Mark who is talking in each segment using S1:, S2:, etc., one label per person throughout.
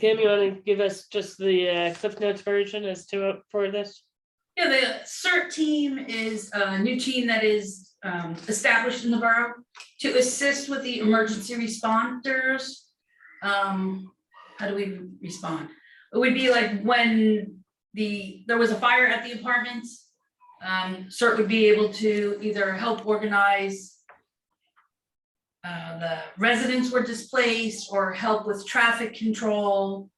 S1: Kim, you want to give us just the uh, Cliff Notes version as to uh, for this?
S2: Yeah, the CERT team is a new team that is um, established in the borough to assist with the emergency responders. Um, How do we respond? It would be like when the, there was a fire at the apartments. um, CERT would be able to either help organize uh, the residents were displaced or help with traffic control.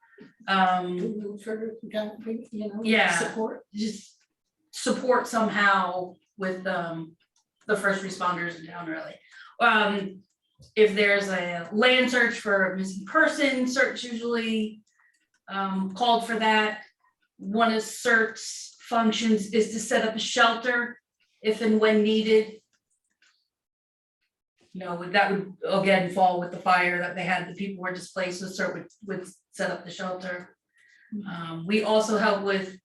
S2: Um,
S3: Move further, down, you know.
S2: Yeah.
S3: Support.
S2: just support somehow with um the first responders in town really. Um if there's a land search for a missing person, search usually um called for that. One of CERT's functions is to set up a shelter if and when needed. You know, would- that would again fall with the fire that they had, the people were displaced, so CERT would would set up the shelter. Um we also help with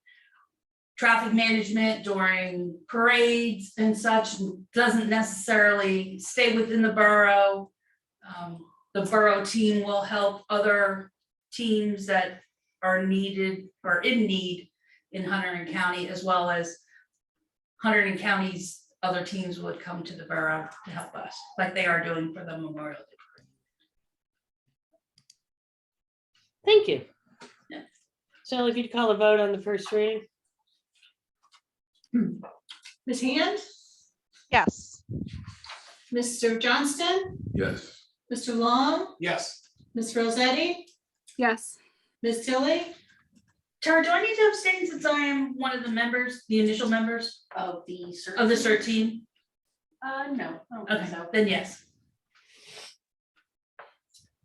S2: traffic management during parades and such doesn't necessarily stay within the borough. Um, the borough team will help other teams that are needed or in need in Hunterdon County as well as Hunterdon County's other teams would come to the borough to help us, like they are doing for the Memorial Day.
S1: Thank you.
S2: Yeah.
S1: Sally, if you'd call a vote on the first reading?
S3: Ms. Hand,
S4: Yes.
S3: Mr. Johnston,
S5: Yes.
S3: Mr. Long,
S5: Yes.
S3: Ms. Rosetti,
S4: Yes.
S3: Ms. Tilly.
S2: Tara, do I need to abstain since I am one of the members, the initial members
S6: Of the cert.
S2: of the CERT team?
S6: Uh, no, I don't think
S2: Okay,
S6: so.
S2: then yes.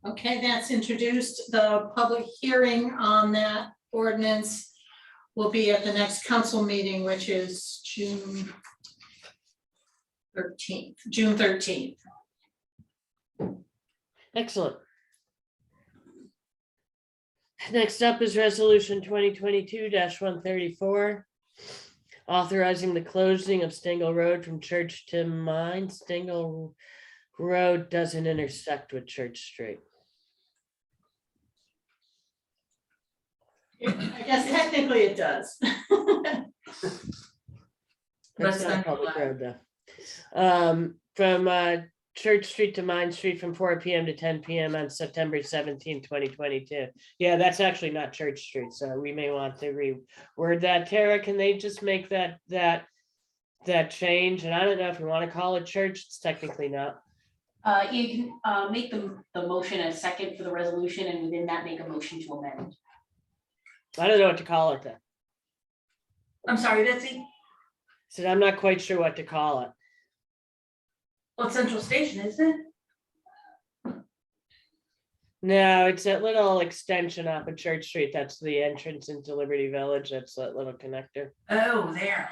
S3: Okay, that's introduced. The public hearing on that ordinance will be at the next council meeting, which is June thirteenth, June thirteenth.
S1: Excellent. Next up is Resolution twenty twenty-two one thirty-four. Authorizing the closing of Stingle Road from Church to Mine. Stingle Road doesn't intersect with Church Street.
S3: I guess technically it does.
S1: That's
S2: That's
S1: not a
S2: not
S1: public
S2: allowed.
S1: road though. Um, from uh Church Street to Mine Street from four PM to ten PM on September 17, 2022. Yeah, that's actually not Church Street, so we may want to reword that. Tara, can they just make that, that, that change? And I don't know if we want to call it church, it's technically not.
S6: Uh, you can, uh, make the, the motion a second for the resolution and within that make a motion to amend.
S1: I don't know what to call it then.
S2: I'm sorry, Betsy.
S1: So I'm not quite sure what to call it.
S2: Well, it's Central Station, isn't it?
S1: No, it's that little extension off of Church Street. That's the entrance into Liberty Village. That's that little connector.
S2: Oh, there.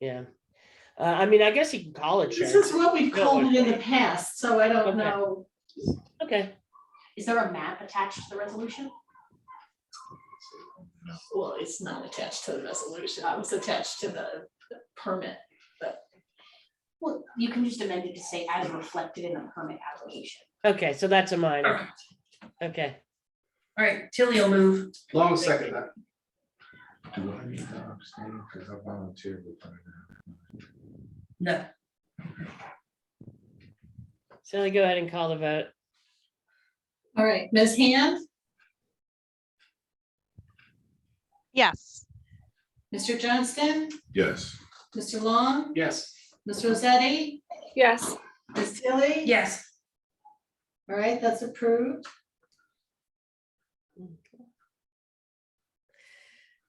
S1: Yeah. Uh, I mean, I guess you can call it
S3: This
S1: church.
S3: is what we've called it in the past, so I
S1: Okay.
S3: don't know.
S1: Okay.
S6: Is there a map attached to the resolution?
S3: Well, it's not attached to the resolution. It was attached to the permit.
S6: Well, you can just amend it to say as reflected in the permit application.
S1: Okay. So that's a minor.
S2: Alright.
S1: Okay.
S2: All right, Tilly will move.
S5: Long second that. Do I need to abstain because I volunteered with her?
S2: No.
S1: So I go ahead and call the vote.
S3: All right, Ms. Hand,
S4: Yes.
S3: Mr. Johnston,
S5: Yes.
S3: Mr. Long,
S5: Yes.
S3: Ms. Rosetti,
S4: Yes.
S3: Ms. Tilly.
S2: Yes.
S3: All right, that's approved.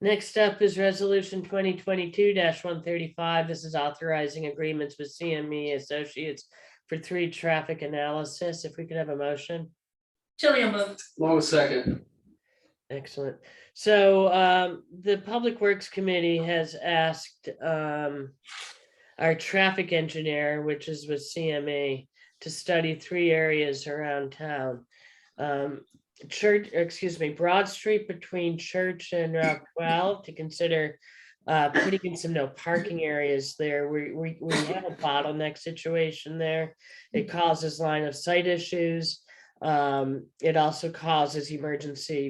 S1: Next up is resolution twenty twenty-two one thirty-five. This is authorizing agreements with CME Associates for three traffic analysis. If we could have a motion.
S2: Tilly will move.
S5: Long second.
S1: Excellent. So um, the Public Works Committee has asked um, our traffic engineer, which is with CMA, to study three areas around town. Um, Church, or excuse me, Broad Street between Church and Route 12 to consider uh, putting in some no parking areas there. We, we, we have a bottleneck situation there. It causes line of sight issues. Um, It also causes emergency